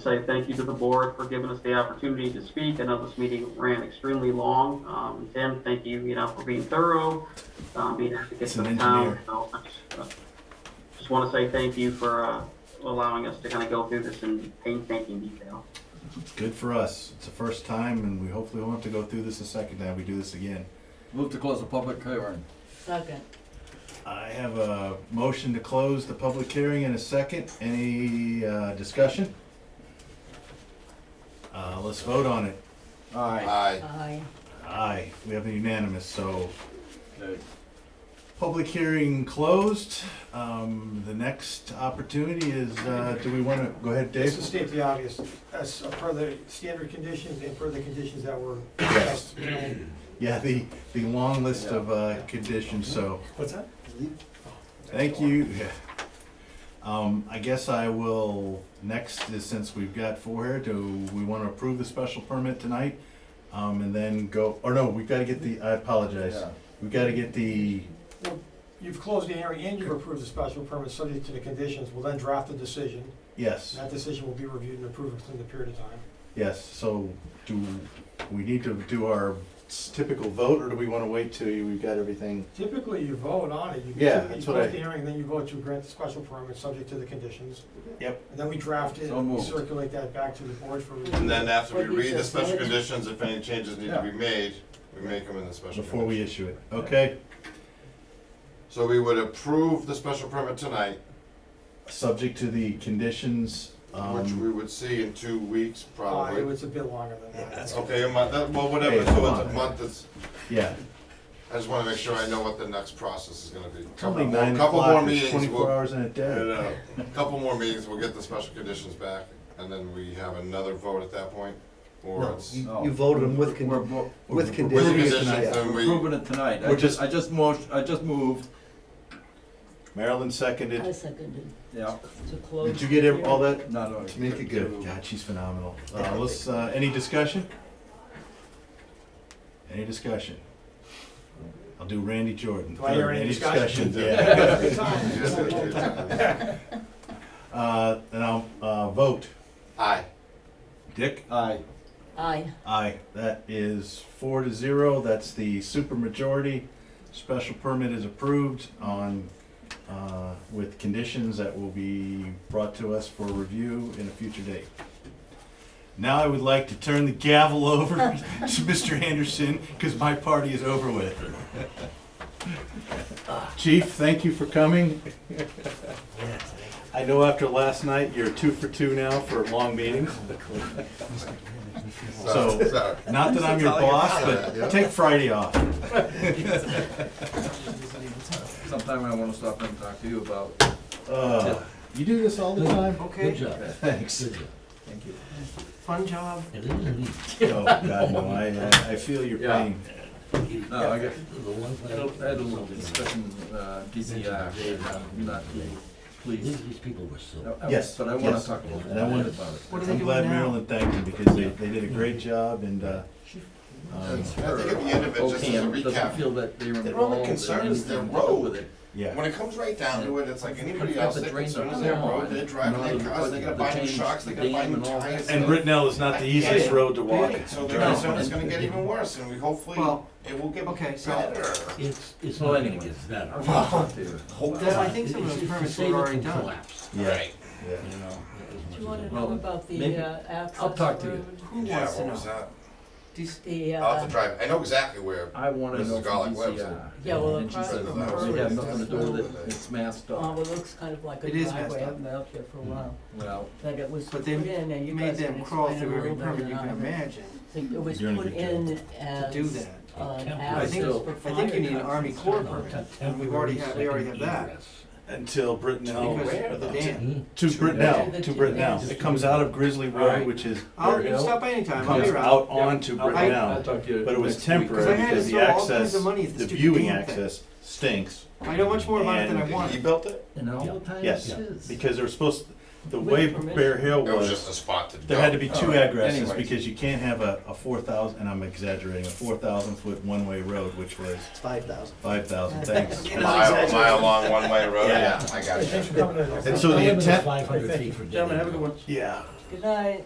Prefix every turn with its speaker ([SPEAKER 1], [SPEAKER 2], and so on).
[SPEAKER 1] say thank you to the board for giving us the opportunity to speak. I know this meeting ran extremely long. Um, Tim, thank you, you know, for being thorough, um, being advocates
[SPEAKER 2] He's
[SPEAKER 1] of
[SPEAKER 2] an
[SPEAKER 1] the town.
[SPEAKER 2] engineer.
[SPEAKER 1] So I just, uh, Just want to say thank you for, uh, allowing us to kind of go through this in painstaking detail.
[SPEAKER 2] Good for us. It's the first time, and we hopefully won't have to go through this a second time. We do this again.
[SPEAKER 3] Move to close the public hearing.
[SPEAKER 4] Second.
[SPEAKER 2] I have a motion to close the public hearing in a second. Any uh, discussion? Uh, Let's vote on it.
[SPEAKER 3] Aye.
[SPEAKER 5] Aye.
[SPEAKER 4] Aye.
[SPEAKER 2] Aye, we have a unanimous, so
[SPEAKER 3] Okay.
[SPEAKER 2] public hearing closed. Um, The next opportunity is, uh, do we want to, go ahead,
[SPEAKER 6] Just to
[SPEAKER 2] Dave?
[SPEAKER 6] state the obvious, as per the standard conditions and per the conditions that were discussed.
[SPEAKER 2] Yeah, the, the long list of uh, conditions, so
[SPEAKER 6] What's that?
[SPEAKER 2] Thank you. Yeah. Um, I guess I will, next, is since we've got four here, do we want to approve the special permit tonight? Um, and then go, or no, we've got to get the, I apologize.
[SPEAKER 3] Yeah.
[SPEAKER 2] We've got to get the,
[SPEAKER 6] You've closed the hearing and you've approved the special permit subject to the conditions. We'll then draft a decision.
[SPEAKER 2] yes,
[SPEAKER 6] That decision will be reviewed and approved within the period of time.
[SPEAKER 2] yes, so do, we need to do our typical vote, or do we want to wait till we've got everything?
[SPEAKER 6] Typically, you vote on it. You-
[SPEAKER 2] Yeah, that's what I-
[SPEAKER 6] You close the hearing, then you vote to grant the special permit subject to the conditions.
[SPEAKER 2] Yep.
[SPEAKER 6] And then we draft it,
[SPEAKER 3] So
[SPEAKER 6] we
[SPEAKER 3] moved.
[SPEAKER 6] circulate that back to the board for review.
[SPEAKER 5] And then after we
[SPEAKER 4] What you
[SPEAKER 5] read the
[SPEAKER 4] just
[SPEAKER 5] special
[SPEAKER 4] said.
[SPEAKER 5] conditions, if any changes need to
[SPEAKER 3] Yeah.
[SPEAKER 5] be made, we make them in the special
[SPEAKER 2] Before we
[SPEAKER 5] condition.
[SPEAKER 2] issue it, okay?
[SPEAKER 5] So we would approve the special permit tonight,
[SPEAKER 2] Subject to the conditions,
[SPEAKER 5] which
[SPEAKER 2] um,
[SPEAKER 5] we would see in two weeks
[SPEAKER 6] Uh, it
[SPEAKER 5] probably.
[SPEAKER 6] was a bit longer than that.
[SPEAKER 5] Okay, a month, that- well,
[SPEAKER 2] Hey,
[SPEAKER 5] whatever,
[SPEAKER 2] come
[SPEAKER 5] so it's
[SPEAKER 2] on.
[SPEAKER 5] a month, it's,
[SPEAKER 2] yeah.
[SPEAKER 5] I just wanna make sure I know what the next process is gonna be.
[SPEAKER 2] It's only
[SPEAKER 5] Couple more,
[SPEAKER 2] nine
[SPEAKER 5] couple more
[SPEAKER 2] o'clock,
[SPEAKER 5] meetings.
[SPEAKER 2] it's twenty-four
[SPEAKER 5] we'll-
[SPEAKER 2] hours in a day.
[SPEAKER 5] No, no, no. Couple more meetings, we'll get the special conditions back, and then we have another vote at that point, or
[SPEAKER 7] No,
[SPEAKER 5] it's.
[SPEAKER 3] No.
[SPEAKER 7] you, you voted them with,
[SPEAKER 3] Oh. We're
[SPEAKER 7] con-
[SPEAKER 3] vo-
[SPEAKER 7] with
[SPEAKER 5] With the
[SPEAKER 2] approving it
[SPEAKER 7] conditions.
[SPEAKER 5] conditions,
[SPEAKER 2] tonight.
[SPEAKER 5] then
[SPEAKER 3] we're
[SPEAKER 5] we,
[SPEAKER 3] approving it tonight. I
[SPEAKER 2] We're
[SPEAKER 3] just,
[SPEAKER 2] just-
[SPEAKER 3] I just motion, I just moved,
[SPEAKER 2] Marilyn
[SPEAKER 4] I
[SPEAKER 2] seconded.
[SPEAKER 4] seconded
[SPEAKER 3] yeah.
[SPEAKER 4] to close.
[SPEAKER 2] Did you get ev- all that?
[SPEAKER 3] No, no.
[SPEAKER 2] To make it good. God, she's phenomenal. Uh, let's, uh, any discussion? Any discussion? I'll do Randy Jordan.
[SPEAKER 6] Do I hear any discussion?
[SPEAKER 2] Yeah.
[SPEAKER 5] Aye.
[SPEAKER 2] Uh, and I'll, uh, vote. Dick?
[SPEAKER 3] Aye.
[SPEAKER 4] Aye.
[SPEAKER 2] Aye. That is four to zero. That's the supermajority. Special permit is approved on, uh, with conditions that will be brought to us for review in a future date. Now I would like to turn the gavel over to Mr. Anderson, because my party is over with. Chief, thank you for coming. I know after last night, you're two for two now for long meetings.
[SPEAKER 5] So,
[SPEAKER 2] So-
[SPEAKER 5] so,
[SPEAKER 2] Not that I'm your boss, but take Friday off.
[SPEAKER 3] Sometime I wanna stop and talk to you about.
[SPEAKER 2] Uh, You do this all the time?
[SPEAKER 7] Okay. Good job.
[SPEAKER 2] Thanks.
[SPEAKER 3] Thank you.
[SPEAKER 6] Fun job.
[SPEAKER 7] It isn't easy.
[SPEAKER 2] Oh, God, no, I, I- I feel your
[SPEAKER 3] Yeah.
[SPEAKER 2] pain.
[SPEAKER 3] No, I got,
[SPEAKER 7] The one
[SPEAKER 3] I
[SPEAKER 7] thing-
[SPEAKER 3] had a little discussion, uh, DCR, and I'm not pleased.
[SPEAKER 7] These people were so,
[SPEAKER 3] I- I-
[SPEAKER 2] Yes,
[SPEAKER 3] But I wanna
[SPEAKER 2] yes.
[SPEAKER 3] talk a little bit
[SPEAKER 2] And I
[SPEAKER 3] about
[SPEAKER 2] wanna-
[SPEAKER 3] it.
[SPEAKER 2] I'm glad Marilyn thanked you because they, they did a great job and, uh, um,
[SPEAKER 3] That's
[SPEAKER 5] I
[SPEAKER 3] her
[SPEAKER 5] think at the end of it, just as a
[SPEAKER 3] opinion.
[SPEAKER 5] recap,
[SPEAKER 3] Doesn't feel that they were
[SPEAKER 5] their only
[SPEAKER 3] involved in
[SPEAKER 5] concern is their
[SPEAKER 3] anything to do
[SPEAKER 5] road.
[SPEAKER 3] with it.
[SPEAKER 2] yeah.
[SPEAKER 5] when it comes right down to it, it's like anybody else, they're concerned with
[SPEAKER 3] their
[SPEAKER 5] their road, they're driving their cars, they gotta buy new shocks, they gotta buy new tires.
[SPEAKER 2] And Brittenell is not the easiest road to walk.
[SPEAKER 5] So their concern is gonna get even worse, and we hopefully,
[SPEAKER 8] Well,
[SPEAKER 5] it will get
[SPEAKER 8] okay, so-
[SPEAKER 5] better.
[SPEAKER 7] it's, it's
[SPEAKER 3] Well,
[SPEAKER 7] not gonna
[SPEAKER 3] anyway.
[SPEAKER 7] get better.
[SPEAKER 3] I wanna talk to you.
[SPEAKER 5] Hope
[SPEAKER 8] Well, I think some of those
[SPEAKER 7] It's- it's the
[SPEAKER 8] permits
[SPEAKER 7] same
[SPEAKER 8] were already
[SPEAKER 7] as the
[SPEAKER 8] done.
[SPEAKER 7] collapse,
[SPEAKER 2] Yeah, yeah.
[SPEAKER 7] you know, as
[SPEAKER 4] Do
[SPEAKER 7] much
[SPEAKER 4] you
[SPEAKER 7] as
[SPEAKER 4] want
[SPEAKER 7] it-
[SPEAKER 4] to
[SPEAKER 3] Well,
[SPEAKER 4] know about
[SPEAKER 3] maybe-
[SPEAKER 4] the uh, access
[SPEAKER 3] I'll talk to you.
[SPEAKER 4] road?
[SPEAKER 8] Who
[SPEAKER 5] Yeah,
[SPEAKER 8] wants to
[SPEAKER 5] what was
[SPEAKER 8] know?
[SPEAKER 5] that?
[SPEAKER 8] These-
[SPEAKER 4] The,
[SPEAKER 5] I'll have
[SPEAKER 4] uh,
[SPEAKER 5] to drive, I know exactly where,
[SPEAKER 3] I wanna
[SPEAKER 5] Mrs.
[SPEAKER 3] know from
[SPEAKER 5] Garlic
[SPEAKER 3] DCR.
[SPEAKER 5] Webster.
[SPEAKER 4] Yeah, well,
[SPEAKER 3] And she
[SPEAKER 4] across
[SPEAKER 3] says,
[SPEAKER 4] from
[SPEAKER 3] no,
[SPEAKER 4] her
[SPEAKER 3] we have
[SPEAKER 4] is
[SPEAKER 3] nothing to
[SPEAKER 4] just
[SPEAKER 3] do with
[SPEAKER 5] a-
[SPEAKER 3] it, it's masked
[SPEAKER 4] uh,
[SPEAKER 3] off.
[SPEAKER 4] well, it looks kind of like a
[SPEAKER 8] It is messed
[SPEAKER 4] driveway. I
[SPEAKER 8] up.
[SPEAKER 4] haven't been out there
[SPEAKER 2] Mm-hmm.
[SPEAKER 4] for a while.
[SPEAKER 3] Well,
[SPEAKER 4] Like it was
[SPEAKER 8] But
[SPEAKER 4] put
[SPEAKER 8] they
[SPEAKER 4] in and you
[SPEAKER 8] You made
[SPEAKER 4] guys can
[SPEAKER 8] them crawl
[SPEAKER 4] explain it a
[SPEAKER 8] through every
[SPEAKER 4] little better
[SPEAKER 8] permit
[SPEAKER 4] than
[SPEAKER 8] you
[SPEAKER 4] I
[SPEAKER 8] can
[SPEAKER 4] have.
[SPEAKER 8] imagine
[SPEAKER 4] It was
[SPEAKER 2] You're gonna
[SPEAKER 4] put
[SPEAKER 2] get
[SPEAKER 4] in
[SPEAKER 8] to
[SPEAKER 4] as
[SPEAKER 8] do that.
[SPEAKER 4] an
[SPEAKER 8] I
[SPEAKER 4] access
[SPEAKER 8] think,
[SPEAKER 3] still-
[SPEAKER 4] for
[SPEAKER 8] I think you need an
[SPEAKER 4] fire
[SPEAKER 8] Army Corps
[SPEAKER 7] No,
[SPEAKER 8] permit,
[SPEAKER 7] it's a
[SPEAKER 8] and we've already had,
[SPEAKER 7] temporary
[SPEAKER 8] we already have
[SPEAKER 7] second
[SPEAKER 8] that.
[SPEAKER 7] egress.
[SPEAKER 2] Until Brittenell,
[SPEAKER 8] Because of the dam.
[SPEAKER 7] Hmm.
[SPEAKER 2] to Brittenell, to Brittenell. It comes out of Grizzly Road,
[SPEAKER 3] Alright.
[SPEAKER 2] which is where it
[SPEAKER 8] I'll stop by anytime, I'll
[SPEAKER 2] comes
[SPEAKER 8] be around.
[SPEAKER 2] out onto
[SPEAKER 3] I'll- I'll
[SPEAKER 2] Brittenell.
[SPEAKER 3] talk to you
[SPEAKER 2] But it was
[SPEAKER 3] next week.
[SPEAKER 2] temporary
[SPEAKER 8] 'Cause I had
[SPEAKER 2] because
[SPEAKER 8] to
[SPEAKER 2] the
[SPEAKER 8] throw all kinds
[SPEAKER 2] access,
[SPEAKER 8] of money at the
[SPEAKER 2] the
[SPEAKER 8] stupid
[SPEAKER 2] viewing
[SPEAKER 8] damn thing.
[SPEAKER 2] access stinks.
[SPEAKER 8] I know much more about it than I
[SPEAKER 2] And-
[SPEAKER 5] he
[SPEAKER 8] wanted.
[SPEAKER 5] built it,
[SPEAKER 3] And all the time
[SPEAKER 2] Yes.
[SPEAKER 3] it is.
[SPEAKER 2] Because they were supposed, the way Bear Hill
[SPEAKER 5] it was just a Oh, spot to go.
[SPEAKER 2] There had to be two
[SPEAKER 3] Alright,
[SPEAKER 2] addresses,
[SPEAKER 3] anyways.
[SPEAKER 2] because you can't have a, a four thousand, and I'm exaggerating, a four thousand foot one-way road, which was
[SPEAKER 7] It's five thousand.
[SPEAKER 2] five thousand, thanks.
[SPEAKER 5] Mile, mile long, one-way road,
[SPEAKER 2] Yeah.
[SPEAKER 5] yeah, I got you.
[SPEAKER 6] Thanks for coming in.
[SPEAKER 2] And so the intent,
[SPEAKER 7] Five hundred feet for.
[SPEAKER 8] Gentlemen, have a good one.
[SPEAKER 2] yeah,
[SPEAKER 4] Good night.